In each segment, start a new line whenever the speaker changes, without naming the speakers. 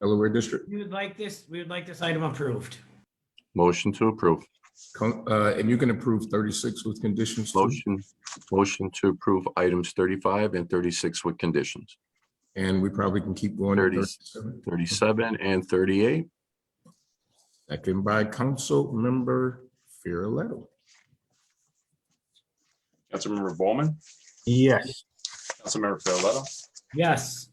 Delaware District.
We would like this, we would like this item approved.
Motion to approve.
Con- uh, And you can approve thirty-six with conditions. too?
Motion, motion to approve items thirty-five and thirty-six with conditions.
And we probably can keep going. to
30.
37.
Thirty-seven and thirty-eight.
Second by Council Member Farrelletto.
Councilmember Bowman,
Yes.
Councilmember Farrelletto,
Yes,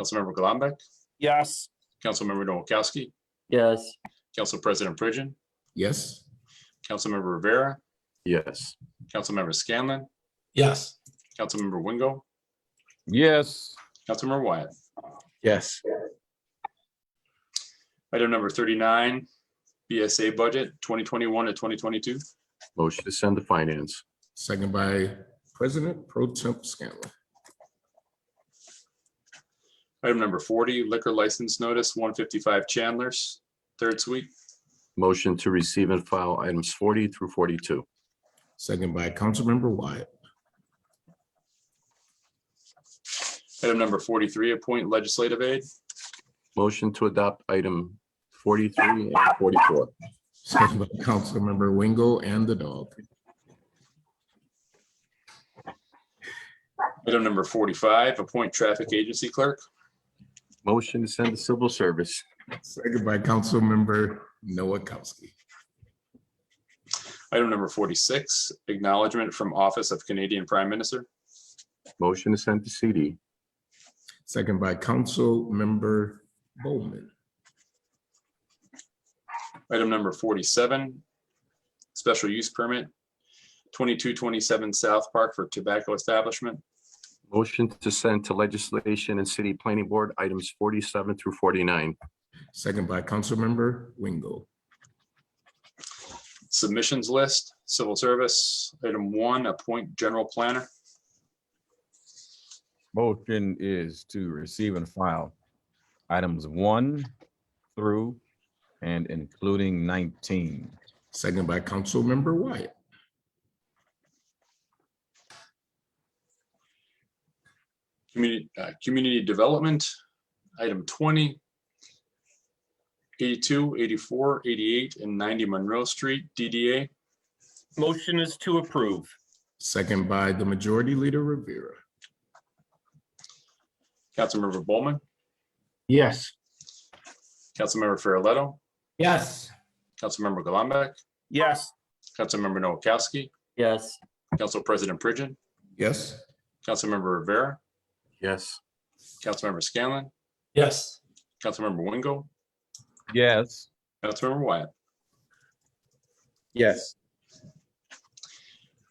Councilmember Gullumbeck,
Yes.
Councilmember Noakowski,
Yes.
Council President Pridgen,
Yes,
Councilmember Rivera,
Yes.
Councilmember Scanlon,
yes,
Councilmember Wingo,
yes,
Councilmember Wyatt.
Yes.
Item number thirty-nine, BSA budget twenty twenty-one to twenty twenty-two.
Motion to send to finance.
second by President Pro Temp Scanlon.
Item number forty, liquor license notice one fifty-five Chandler's, third suite.
Motion to receive and file items forty through forty-two.
Second by Councilmember Wyatt.
Item number forty-three, appoint legislative aid.
Motion to adopt item forty-three and forty-four.
Second by Councilmember Wingo and the dog.
Item number forty-five, appoint traffic agency clerk.
Motion to send to civil service.
Second by Councilmember Noakowski.
Item number forty-six, acknowledgement from Office of Canadian Prime Minister.
Motion to send to CD.
Second by Councilmember Bowman.
Item number forty-seven, special use permit, twenty-two twenty-seven South Park for tobacco establishment.
Motion to send to legislation and city planning board items forty-seven through forty-nine.
Second by Councilmember Wingo.
Submissions list, civil service, item one, appoint general planner.
motion is to receive and file items one through and including nineteen.
Second by Councilmember Wyatt.
Community, uh, community development, item 20, 82, 84, 88, and ninety Monroe Street, DDA.
Motion is to approve.
Second by the Majority Leader Rivera.
Councilmember Bowman,
Yes.
Councilmember Farrelletto,
yes,
Councilmember Gullumbeck,
Yes.
Councilmember Noakowski,
Yes.
Council President Pridgen,
Yes,
Councilmember Rivera,
Yes.
Councilmember Scanlon,
yes,
Councilmember Wingo,
Yes,
Councilmember Wyatt.
Yes.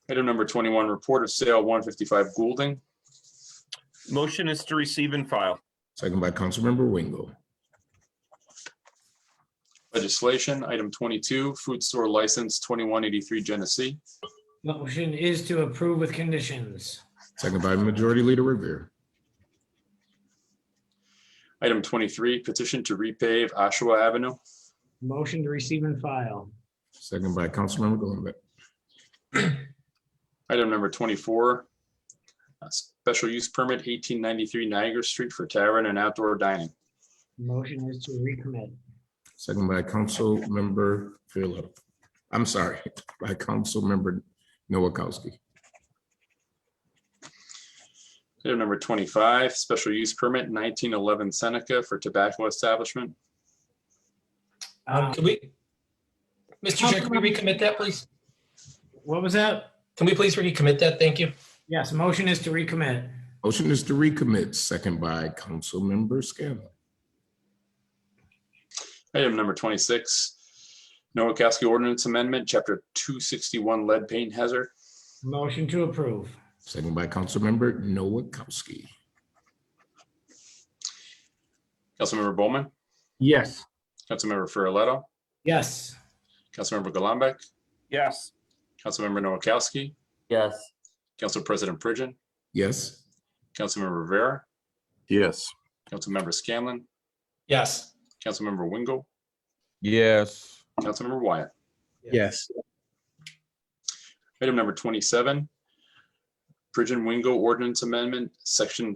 Item number twenty-one, report of sale one fifty-five Goulding.
Motion is to receive and file.
second by Councilmember Wingo.
Legislation, item twenty-two, food store license twenty-one eighty-three Genesee.
motion is to approve with conditions.
Second by Majority Leader Rivera.
Item twenty-three, petition to repave Ashua Avenue.
Motion to receive and file.
Second by Councilmember Golumback.
Item number twenty-four, uh, special use permit eighteen ninety-three Niagara Street for tavern and outdoor dining.
Motion is to recommit.
Second by Councilmember Farrelletto. I'm sorry, by Councilmember Noakowski.
Item number twenty-five, special use permit nineteen eleven Seneca for tobacco establishment.
Um,
Uh,
can we? Mr. Chair, can we recommit that, please?
What was that?
Can we please recommit that? Thank you.
Yes, motion is to recommit.
Motion is to recommit, second by Councilmember Scanlon.
Item number twenty-six, Noakowski ordinance amendment, chapter two sixty-one lead paint hazard.
Motion to approve.
Second by Councilmember Noakowski.
Councilmember Bowman,
Yes.
Councilmember Farrelletto,
Yes,
Councilmember Gullumbeck,
Yes.
Councilmember Noakowski,
Yes.
Council President Pridgen,
Yes,
Councilmember Rivera,
Yes.
Councilmember Scanlon,
Yes,
Councilmember Wingo,
yes,
Councilmember Wyatt.
Yes.
Item number twenty-seven, Pridgen Wingo ordinance amendment, section